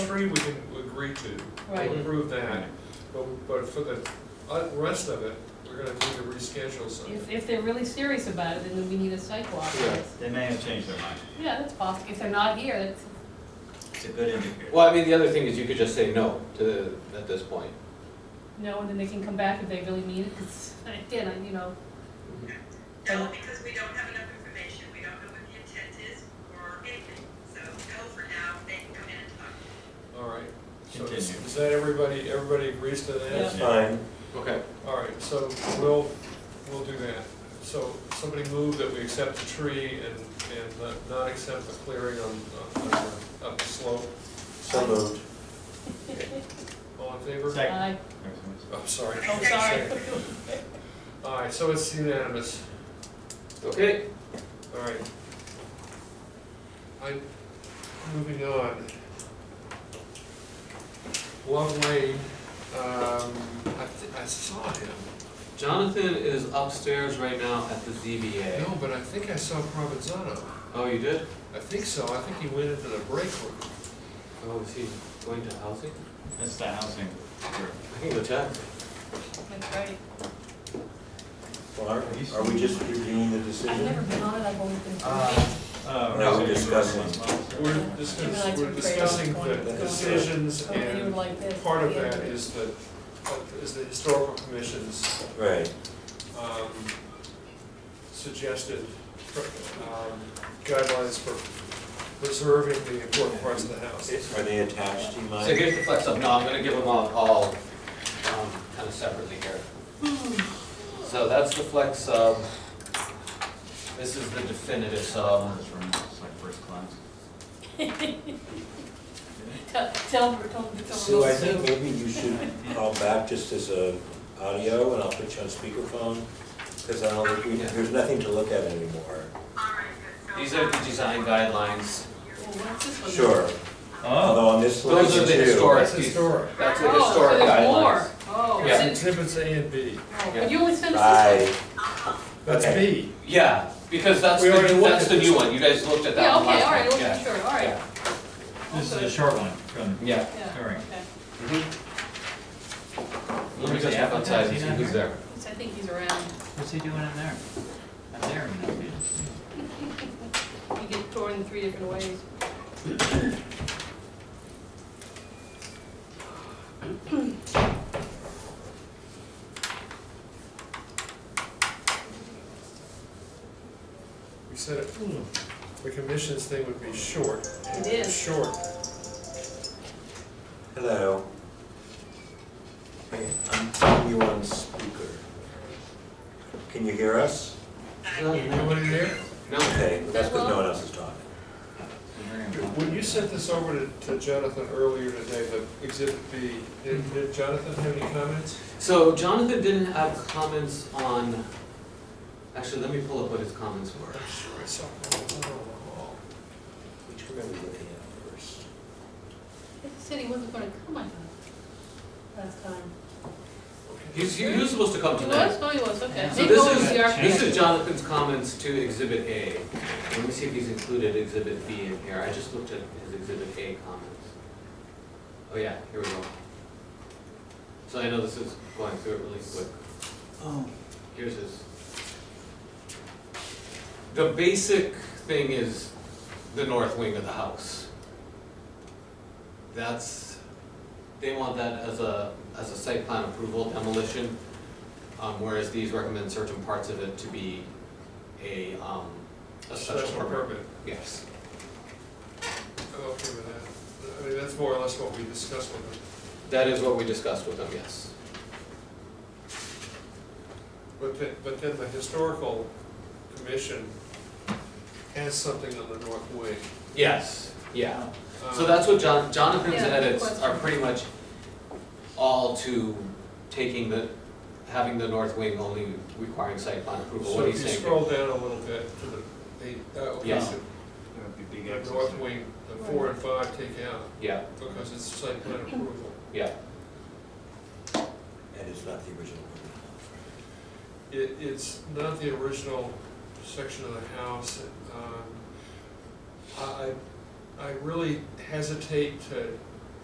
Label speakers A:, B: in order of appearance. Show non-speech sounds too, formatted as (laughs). A: three we can agree to,
B: Right.
A: we'll approve that, but, but for the uh, rest of it, we're gonna need to reschedule
B: If,
A: something.
B: if they're really serious about it, then we need a sidewalk.
C: Yeah.
D: They may have changed their mind.
B: Yeah, that's possible. If they're not here, that's,
D: It's a good indicator.
C: Well, I mean, the other thing is you could just say no to, the- at this point.
B: no, and then they can come back if they really mean it, because, (laughs) again, I- you know,
E: No, because we don't have enough information, we don't know what the intent is or anything, so go for now, they can come in and talk.
A: All right, so is
D: Continue.
A: is that everybody, everybody agrees to that?
B: Yeah.
D: Yeah.
F: Fine.
C: Okay.
A: All right, so we'll, we'll do that. So somebody move that we accept the tree and, and not- not accept the clearing on, on, the- up the slope.
F: So moved.
A: All in favor?
D: Second.
B: I,
A: I'm sorry.
B: oh, sorry.
A: All right, so it's unanimous.
C: Okay.
A: All right. I, moving on. Love Lane, um, I, thi- I saw him.
C: Jonathan is upstairs right now at the ZBA.
A: No, but I think I saw Provenzano.
C: Oh, you did?
A: I think so. I think he went into the break room.
C: Oh, is he going to housing?
D: That's the housing group.
C: I can go check.
B: (laughs) That's right.
F: Well, Are are we just reviewing the
B: I've never
F: decision?
B: been on it, I've always been.
D: Uh, uh,
F: No,
D: residential
F: discussing.
D: residential.
A: We're discuss-
B: Would you like to
A: we're discussing
B: create a-
A: the decisions
B: Oh, you would
A: and
B: like this.
A: part of
B: Yeah.
A: that is the, is the historical commission's,
F: Right.
A: um, suggested, um, guidelines for preserving the important parts of the house.
F: Are they attached, do you
C: So
F: mind?
C: here's the flex up. No, I'm gonna give them all, all, um, kind of separately here. (sighs) So that's the flex sub. This is the definitive sub.
D: This room is like first class.
B: (laughs) Tell, tell, tell. tell-
F: Sue, I think maybe you should call back just as a audio, and I'll put you on speakerphone, because I don't, think we- there's nothing to look at anymore.
E: All right, good. So,
C: These are the design guidelines.
B: Well, Oh, what's this one?
F: Sure,
D: oh.
F: although on this one,
C: Those are the
F: too.
C: historic.
A: That's historic.
C: That's a
B: Oh, so
C: historic
B: there's
C: guidelines.
B: more. Oh,
C: Yeah.
B: is it-
A: Exhibits A and B.
B: oh,
C: Yeah.
B: but you only sent us this
F: Right,
A: That's
F: Okay.
A: B.
C: Yeah, because that's
A: We
C: the,
A: already looked
C: that's
A: at
C: the
A: this
C: new
A: one.
C: one, you guys looked at
B: one. Yeah,
C: that one
B: okay,
C: last
B: all right,
C: time.
B: okay, sure, all right.
D: This is a
B: Okay.
D: short one from.
C: Yeah.
B: Yeah,
D: All right.
B: okay.
C: Let me just step outside and see who's there.
B: So I think he's around.
D: What's he doing in there? I'm there, you know.
B: You get torn in three different ways.
A: We said, it, hmm, the commission's thing would be short.
B: It is.
A: Short.
F: hello. Hey, I'm putting you on speaker. Can you hear us?
A: Nobody there?
C: No,
F: Okay, that's because no
B: Hello?
F: one else is talking.
A: When you sent this over to- to Jonathan earlier today, the exhibit B,
C: Hmm.
A: did did Jonathan have any comments?
C: so Jonathan didn't have comments on, actually, let me pull up what his comments were.
A: sure I saw one on the wall.
F: Which we're gonna be looking at first.
B: He said he wasn't gonna come, I thought, last time.
C: He's, he was supposed to come
B: He
C: tonight.
B: was, oh, he was, okay.
C: So
B: Maybe
C: this
B: it was
C: is-
B: the architect.
C: This is Jonathan's comments to exhibit A. Let me see if he's included exhibit B in here, I just looked at his exhibit A comments. Oh yeah, here we go. So I know this is going through it really quick.
D: Oh.
C: Here's his. The basic thing is the north wing of the house. That's, they want that as a, as a site plan approval demolition, um, whereas these recommend certain parts of it to be a, um, a special permit. Yes.
A: I'm okay with that. I mean, that's more or less what we discussed with them.
C: That is what we discussed with them, yes.
A: But then, but then the historical commission has something on the north wing.
C: Yes, yeah. So
A: Um,
C: that's what Jon- Jonathan's
B: Yeah, good
C: edits are
B: question.
C: pretty much all to taking the, having the north wing only requiring site plan approval,
A: So
C: what
A: if
C: he's
A: you
C: saying.
A: scroll down a little bit to the, the, uh, okay,
C: Yeah.
A: so the north wing, the four and five take out,
C: Yeah,
A: because it's site plan approval.
C: yeah,
F: And it's not the original one.
A: It, it's not the original section of the house. um, I, I I really hesitate to